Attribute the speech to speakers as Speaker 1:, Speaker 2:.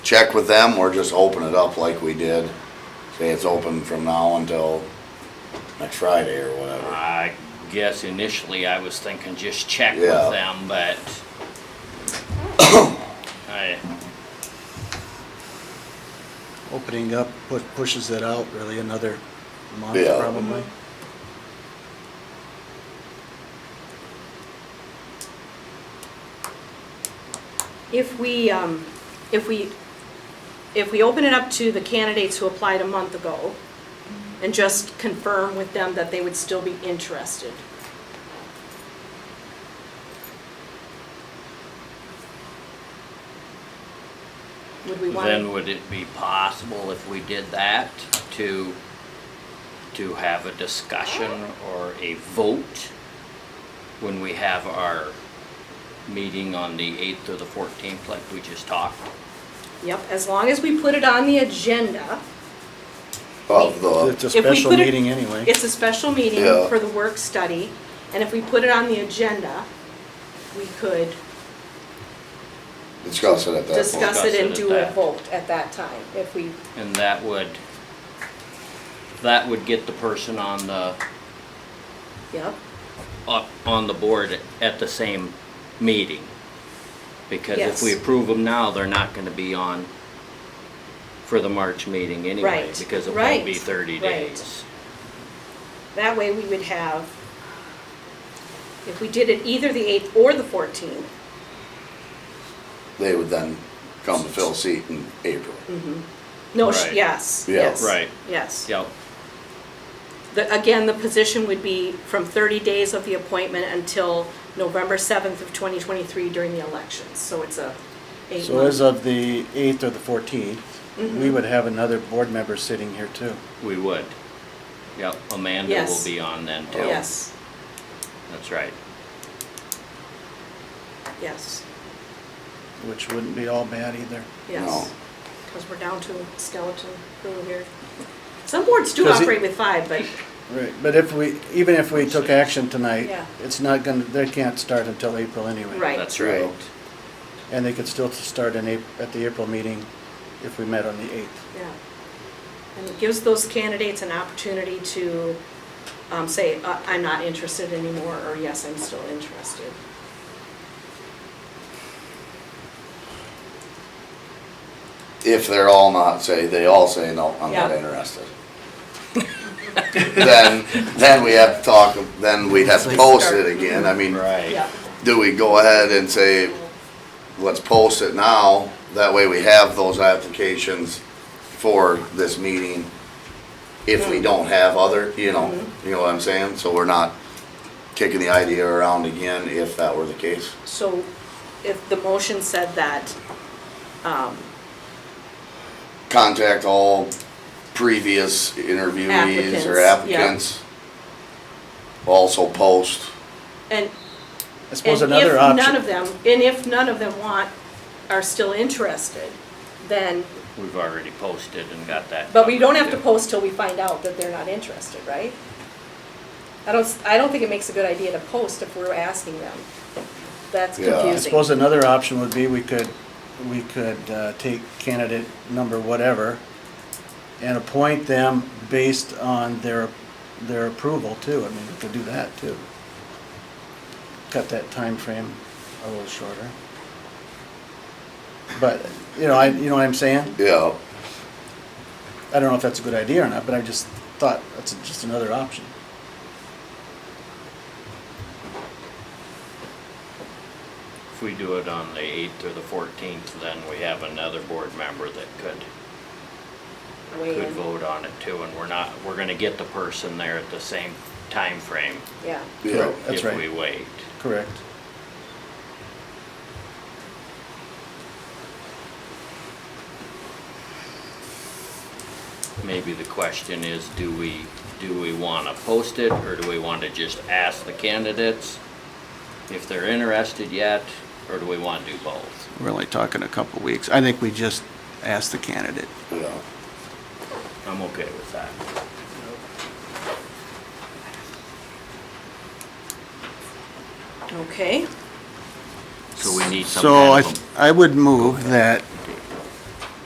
Speaker 1: check with them or just open it up like we did. Say it's open from now until next Friday or whatever.
Speaker 2: I guess initially I was thinking just check with
Speaker 1: Yeah.
Speaker 2: them, but I,
Speaker 3: Opening up pu- pushes it out really another month
Speaker 1: Yeah.
Speaker 3: probably.
Speaker 4: If we, um, if we, if we open it up to the candidates who applied a month ago and just confirm with them that they would still be interested. Would we want
Speaker 2: then
Speaker 4: to?
Speaker 2: would it be possible if we did that to, to have a discussion or a vote when we have our meeting on the eighth or the fourteenth, like we just talked?
Speaker 4: Yep, as long as we put it on the agenda,
Speaker 1: Of
Speaker 3: It's
Speaker 1: the,
Speaker 3: a
Speaker 4: If we
Speaker 3: special
Speaker 4: put it-
Speaker 3: meeting anyway.
Speaker 4: it's a special meeting
Speaker 1: Yeah.
Speaker 4: for the work study, and if we put it on the agenda, we could
Speaker 1: discuss it at that point.
Speaker 4: discuss it and
Speaker 2: Discuss it
Speaker 4: do
Speaker 2: at
Speaker 4: a
Speaker 2: that.
Speaker 4: vote at that time, if we
Speaker 2: And that would, that would get the person on the,
Speaker 4: Yep,
Speaker 2: up on the board at the same meeting. Because if we
Speaker 4: Yes.
Speaker 2: approve them now, they're not gonna be on for the March meeting anyway,
Speaker 4: Right,
Speaker 2: because it won't be
Speaker 4: right,
Speaker 2: thirty
Speaker 4: right.
Speaker 2: days.
Speaker 4: that way we would have, if we did it either the eighth or the fourteenth,
Speaker 1: They would then come to fill a seat in April.
Speaker 4: no, sh-
Speaker 2: Right.
Speaker 4: yes,
Speaker 1: Yeah.
Speaker 4: yes.
Speaker 2: Right.
Speaker 4: Yes.
Speaker 2: Yep,
Speaker 4: The, again, the position would be from thirty days of the appointment until November seventh of twenty twenty-three during the elections, so it's a eight Mm-hmm.
Speaker 3: So as
Speaker 4: month.
Speaker 3: of the eighth or the fourteenth, we would have another board member sitting here too.
Speaker 2: we would. Yep, Amanda will
Speaker 4: Yes.
Speaker 2: be on then too.
Speaker 4: Yes,
Speaker 2: That's right.
Speaker 4: yes,
Speaker 3: Which wouldn't be all bad either.
Speaker 1: No.
Speaker 4: yes, because we're down to a skeleton crew here. Some boards do
Speaker 3: Does it-
Speaker 4: operate with five, but,
Speaker 3: Right, but if we, even if we took action tonight,
Speaker 4: Yeah.
Speaker 3: it's not gonna, they can't start until April anyway.
Speaker 4: Right.
Speaker 2: That's
Speaker 1: Yeah.
Speaker 2: right.
Speaker 3: And they could still start in Ap- at the April meeting if we met on the eighth.
Speaker 4: Yeah. And it gives those candidates an opportunity to um, say, "Uh, I'm not interested anymore, or yes, I'm still interested.
Speaker 1: If they're all not, say, they all say, no, I'm not
Speaker 4: Yeah.
Speaker 1: interested. Then, then we have to talk, then we'd have to post it again. I mean,
Speaker 2: Right.
Speaker 1: do we go ahead and say, let's post it now? That way we have those applications for this meeting if we don't have other, you know,
Speaker 4: Mm-hmm.
Speaker 1: you know what I'm saying? So we're not kicking the idea around again if that were the case.
Speaker 4: So if the motion said that, um,
Speaker 1: Contact all previous interviewees or
Speaker 4: Applicants, yeah.
Speaker 1: applicants. Also post,
Speaker 4: and
Speaker 3: I suppose
Speaker 4: and
Speaker 3: another
Speaker 4: if none of
Speaker 3: option,
Speaker 4: them, and if none of them want, are still interested, then,
Speaker 2: We've already posted and got that.
Speaker 4: but we don't have
Speaker 2: covered,
Speaker 4: to
Speaker 2: too.
Speaker 4: post till we find out that they're not interested, right? I don't, s- I don't think it makes a good idea to post if we're asking them. That's
Speaker 1: Yeah. I
Speaker 4: confusing.
Speaker 3: I suppose another option would be we could, we could uh, take candidate number whatever and appoint them based on their, their approval too. I mean, we could do that too. Cut that time frame a little shorter. But, you know, I, you know what I'm saying?
Speaker 1: yeah.
Speaker 3: I don't know if that's a good idea or not, but I just thought that's just another option.
Speaker 2: If we do it on the eighth or the fourteenth, then we have another board member that could
Speaker 4: Weigh
Speaker 2: could
Speaker 4: in.
Speaker 2: vote on it too, and we're not, we're gonna get the person there at the same time frame
Speaker 4: Yeah.
Speaker 1: Yeah.
Speaker 3: Correct. That's
Speaker 2: if
Speaker 3: right.
Speaker 2: we wait.
Speaker 3: Correct.
Speaker 2: Maybe the question is, do we, do we wanna post it, or do we wanna just ask the candidates if they're interested yet, or do we wanna do both?
Speaker 3: We're only talking a couple weeks. I think we just asked the candidate.
Speaker 1: Yeah.
Speaker 2: I'm okay with that.
Speaker 4: Okay.
Speaker 2: So we need some
Speaker 3: So I,
Speaker 2: kind of
Speaker 3: I would move that